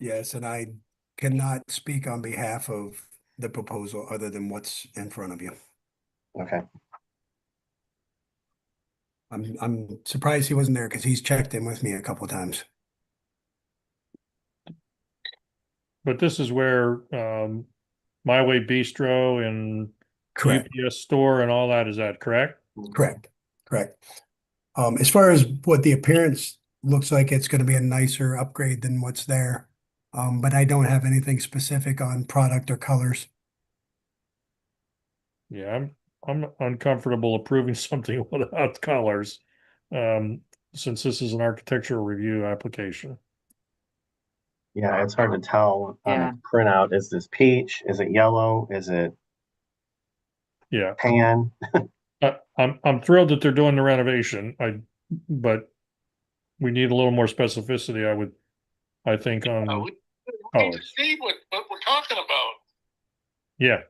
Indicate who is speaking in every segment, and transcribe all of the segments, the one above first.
Speaker 1: Yes, and I cannot speak on behalf of the proposal other than what's in front of you.
Speaker 2: Okay,
Speaker 1: I'm, I'm surprised he wasn't there because he's checked in with me a couple times.
Speaker 3: But this is where um, My Way Bistro and
Speaker 1: Correct,
Speaker 3: UPS store and all that is at, correct?
Speaker 1: correct, correct. Um, as far as what the appearance looks like, it's gonna be a nicer upgrade than what's there. Um, but I don't have anything specific on product or colors.
Speaker 3: Yeah, I'm I'm uncomfortable approving something without colors. Um, since this is an architectural review application.
Speaker 2: yeah, it's hard to tell on
Speaker 4: Yeah.
Speaker 2: a printout. Is this peach? Is it yellow? Is it
Speaker 3: Yeah,
Speaker 2: pan?
Speaker 3: I, I'm I'm thrilled that they're doing the renovation. I but we need a little more specificity. I would, I think um,
Speaker 5: Uh,
Speaker 3: on
Speaker 5: we we need to
Speaker 3: Colors.
Speaker 5: see what, what we're talking about.
Speaker 3: yeah.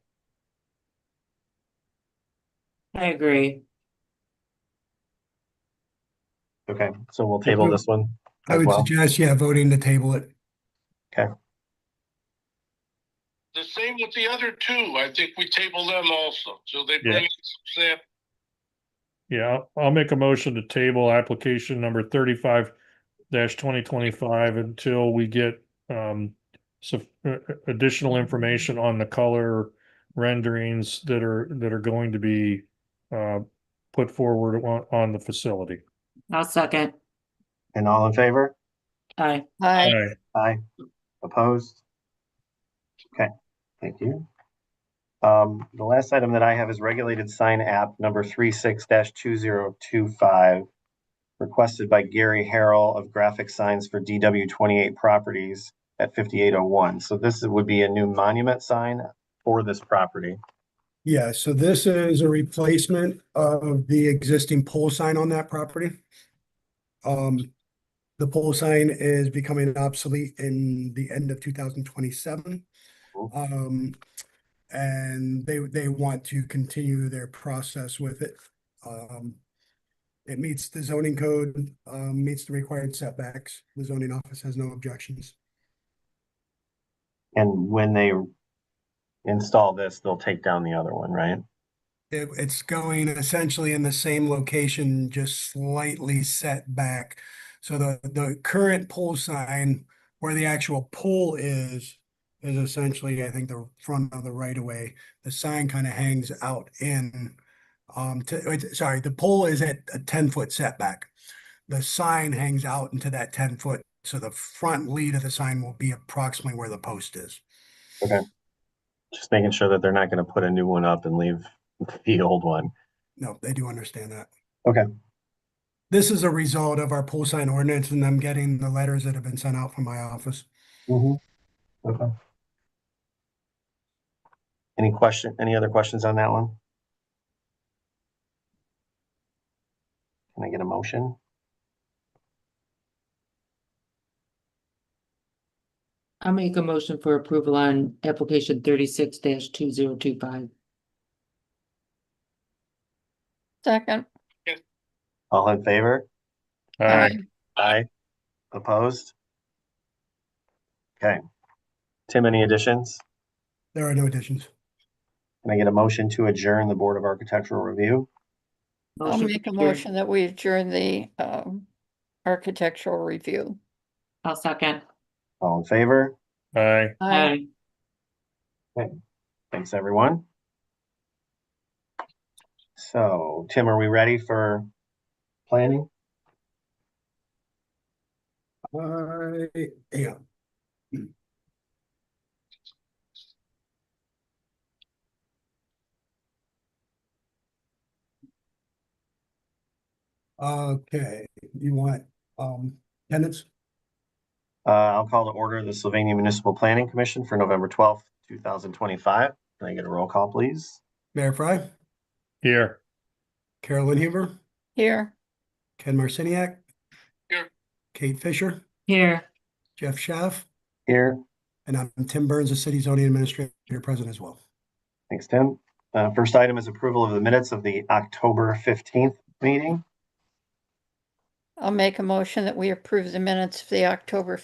Speaker 4: I agree.
Speaker 2: Okay, so we'll table this one
Speaker 1: I
Speaker 2: as
Speaker 1: would
Speaker 2: well.
Speaker 1: suggest, yeah, voting to table it.
Speaker 5: The same with the other two. I think we table them also, so they bring some sample.
Speaker 3: Yeah, I'll- I'll make a motion to table application number thirty-five twenty twenty-five until we get um some additional information on the color renderings that are that are going to be uh put forward on on the facility.
Speaker 4: I'll second.
Speaker 2: And all in favor?
Speaker 4: Aye.
Speaker 6: Hi.
Speaker 3: Aye.
Speaker 2: Aye. Opposed? Okay, thank you. Um, the last item that I have is regulated sign app number three six dash two zero two five. Requested by Gary Harrell of Graphic Signs for DW twenty-eight properties at fifty-eight oh one. So this would be a new monument sign for this property.
Speaker 1: Yeah, so this is a replacement of the existing pole sign on that property. Um, the pole sign is becoming obsolete in the end of two thousand twenty-seven.
Speaker 2: Cool.
Speaker 1: Um, and they, they want to continue their process with it. Um, it meets the zoning code, um, meets the required setbacks. The zoning office has no objections.
Speaker 2: And when they install this, they'll take down the other one, right?
Speaker 1: It, it's going essentially in the same location, just slightly set back. So the, the current pole sign where the actual pole is, is essentially, I think, the front of the right of way. The sign kind of hangs out in, um, to, it's- sorry, the pole is at a ten foot setback. The sign hangs out into that ten foot, so the front lead of the sign will be approximately where the post is.
Speaker 2: Just making sure that they're not gonna put a new one up and leave the old one.
Speaker 1: No, they do understand that.
Speaker 2: Okay.
Speaker 1: This is a result of our pole sign ordinance and them getting the letters that have been sent out from my office.
Speaker 2: Okay. Any question, any other questions on that one? Can I get a motion?
Speaker 4: I'll make a motion for approval on application thirty-six two zero two five.
Speaker 6: Second.
Speaker 2: All in favor?
Speaker 3: Aye.
Speaker 2: Aye. Opposed? Okay. Tim, any additions?
Speaker 1: There are no additions.
Speaker 2: Can I get a motion to adjourn the Board of Architectural Review?
Speaker 6: I'll
Speaker 4: Motion
Speaker 6: make a
Speaker 4: adjourned.
Speaker 6: motion that we adjourn the um architectural review.
Speaker 4: I'll second.
Speaker 2: All in favor?
Speaker 3: Aye.
Speaker 6: Aye.
Speaker 2: Thanks, everyone. So, Tim, are we ready for planning?
Speaker 1: I am. Okay, you want, um, tenants?
Speaker 2: Uh, I'll call to order the Sylvania Municipal Planning Commission for November twelfth, two thousand twenty-five. Can I get a roll call, please?
Speaker 1: Mayor Fry,
Speaker 3: Here.
Speaker 1: Carolyn Huber,
Speaker 6: Here,
Speaker 1: Ken Marciniak.
Speaker 5: Here.
Speaker 1: Kate Fisher,
Speaker 4: Here,
Speaker 1: Jeff Schaff,
Speaker 2: Here,
Speaker 1: and I'm Tim Burns, the city zoning administrator present as well.
Speaker 2: thanks, Tim. Uh, first item is approval of the minutes of the October fifteenth meeting.
Speaker 6: I'll make a motion that we approve the minutes of the October